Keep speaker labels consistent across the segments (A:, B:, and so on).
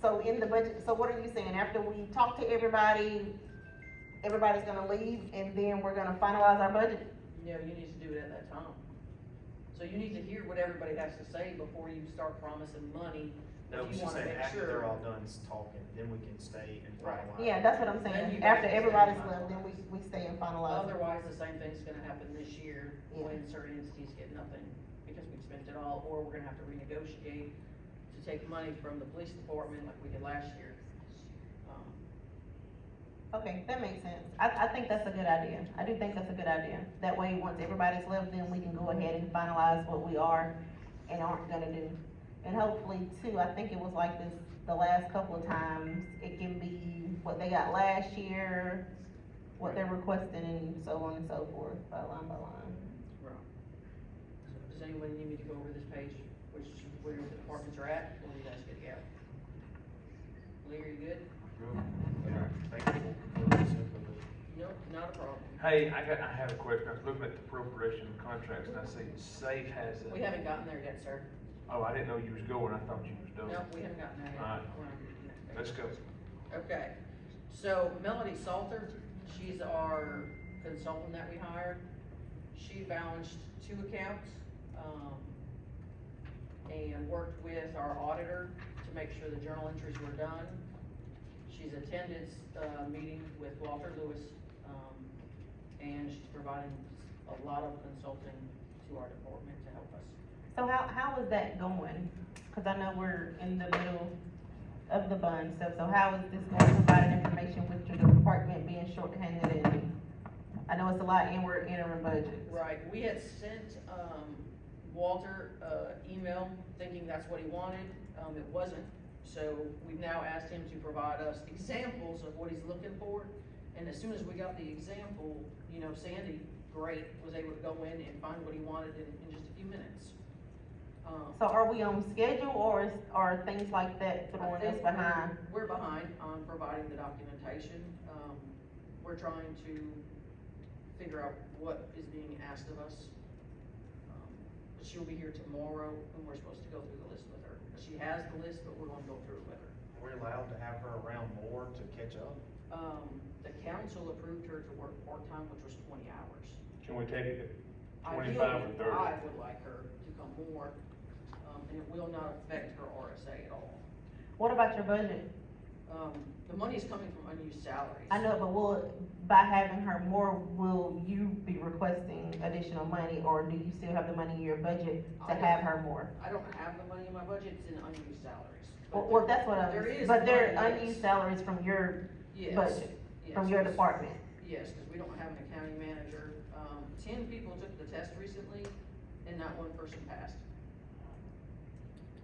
A: So in the budget, so what are you saying, after we talk to everybody, everybody's gonna leave, and then we're gonna finalize our budget?
B: No, you need to do it at that time. So you need to hear what everybody has to say before you start promising money.
C: No,
B: If
C: we
B: you
C: should
B: wanna
C: say
B: make
C: after
B: sure-
C: they're all done talking, then we can stay and
B: Right.
C: finalize.
A: Yeah, that's what I'm
B: Then you
A: saying,
B: guys
A: after
B: can
A: everybody's
B: stay and
A: left, then we, we stay and finalize.
B: Otherwise, the same thing's gonna happen this year
A: Yeah.
B: when certain entities get nothing because we've spent it all, or we're gonna have to renegotiate to take money from the police department like we did last year. Um,
A: Okay, that makes sense, I, I think that's a good idea, I do think that's a good idea, that way, once everybody's left, then we can go ahead and finalize what we are and aren't gonna do. And hopefully too, I think it was like this the last couple of times, it can be what they got last year, what they're requesting and so on and so forth, by line by line.
B: Right. So Does anyone need me to go over this page, which, where the departments are at, or you guys good to go? Lee, are you good?
C: Okay, Thank you for this information.
B: Nope, not a problem.
D: Hey, I got, I have a question, I was looking at the appropriation contracts, and I see Safe has a.
B: We haven't gotten there yet, sir.
D: Oh, I didn't know you was going, I thought you was done.
B: No, we haven't gotten there yet.
D: Alright.
B: We're on the next page.
D: Let's go.
B: Okay, so Melody Salter, she's our consultant that we hired. She balanced two accounts, um, and worked with our auditor to make sure the journal entries were done. She's attended, uh, meeting with Walter Lewis, um, and she's providing a lot of consulting to our department to help us.
A: So how, how is that going? Cause I know we're in the middle of the bun stuff, so how is this going to provide information with your department being shorthanded and? I know it's a lot and we're entering budget.
B: Right, we had sent, um, Walter, uh, email thinking that's what he wanted, um, it wasn't. So we've now asked him to provide us examples of what he's looking for, and as soon as we got the example, you know, Sandy, great, was able to go in and find what he wanted in, in just a few minutes. Um,
A: So are we on schedule or is, are things like that throwing
B: I
A: us
B: think
A: behind?
B: We're we're behind on providing the documentation. Um, we're trying to figure out what is being asked of us. Um, But she'll be here tomorrow and we're supposed to go through the list with her. She has the list, but we're gonna go through it with her.
C: We're allowed to have her around more to catch up?
B: Um, the council approved her to work part-time, which was twenty hours.
D: Can we take it to
B: Ideally,
D: twenty-five or thirty?
B: I would like her to come more, um, and it will not affect her RSA at all.
A: What about your budget?
B: Um, the money's coming from unused salaries.
A: I know, but will, by having her more, will you be requesting additional money or do you still have the money in your budget
B: I
A: to
B: don't-
A: have her more?
B: I don't have the money in my budget, it's in unused salaries.
A: Well, well, that's what
B: There
A: I'm,
B: is
A: but there are
B: money, yes.
A: unused salaries from your,
B: Yes,
A: budget
B: yes,
A: from your
B: yes.
A: department.
B: Yes, because we don't have an accounting manager. Um, ten people took the test recently and not one person passed.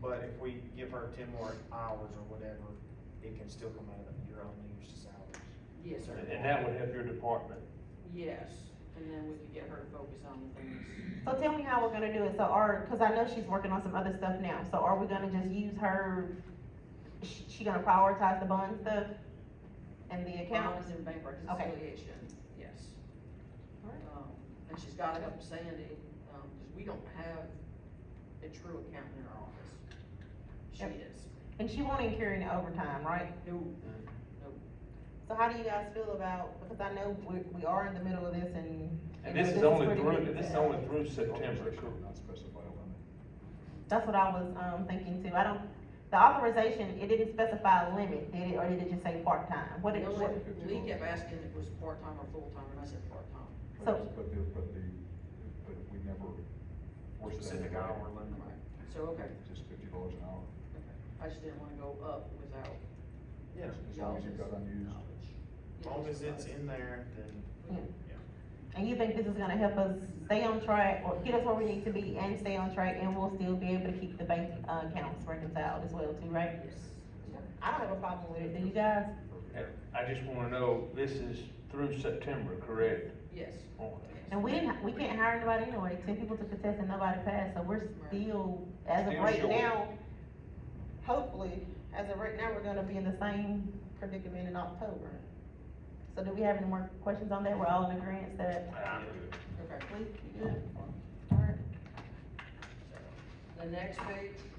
C: But if we give her ten more hours or whatever, it can still come out of your unused salaries.
B: Yes, sir.
C: Right.
D: And that would help your department.
B: Yes, and then we could get her to focus on the things.
A: So tell me how we're gonna do it, so are, cause I know she's working on some other stuff now, so are we gonna just use her? She, she gonna prioritize the bond stuff and the accounts?
B: Bonds and bank reconciliation, yes. Um, and she's got it up to Sandy, um, because we don't have a true accountant in our office. She
A: Yep.
B: is.
A: And she won't even carry any overtime, right?
B: No,
D: Mm-hmm.
A: So how do you guys feel about, because I know we, we are in the middle of this and.
D: And this is only through, this is only through September.
E: Not specified on
A: That's what I was, um, thinking too, I don't, the authorization, it didn't specify a limit, did it, or did it just say part-time? What did,
B: No,
A: what,
B: Lee kept asking if it was part-time or full-time, and I said part-time.
E: it.
A: So-
E: But the, but the, but we never.
C: Or
E: forced that
C: specific
E: anyway.
C: hour limit.
B: So, okay,
E: Just fifty dollars an hour,
B: okay, I just didn't wanna go up without
C: Yeah,
E: as
B: y'all's
E: long as you've got unused.
B: knowledge.
C: as long as it's in there, then.
A: and you think this is gonna help us stay on track, or get us where we need to be and stay on track, and we'll still be able to keep the bank, uh, accounts reconciled as well too, right?
B: Yes.
A: I don't have a problem with it, do you guys?
D: And I just wanna know, this is through September, correct?
B: Yes.
A: And we didn't, we can't hire anybody anyway, ten people took the test and nobody passed, so we're still, as of
D: Still
A: right
D: short.
A: now, hopefully, as of right now, we're gonna be in the same predicament in October. So do we have any more questions on that? We're all in agreement that,
D: I'm good.
B: Okay,
A: we, you good? All right.
B: so, the next page,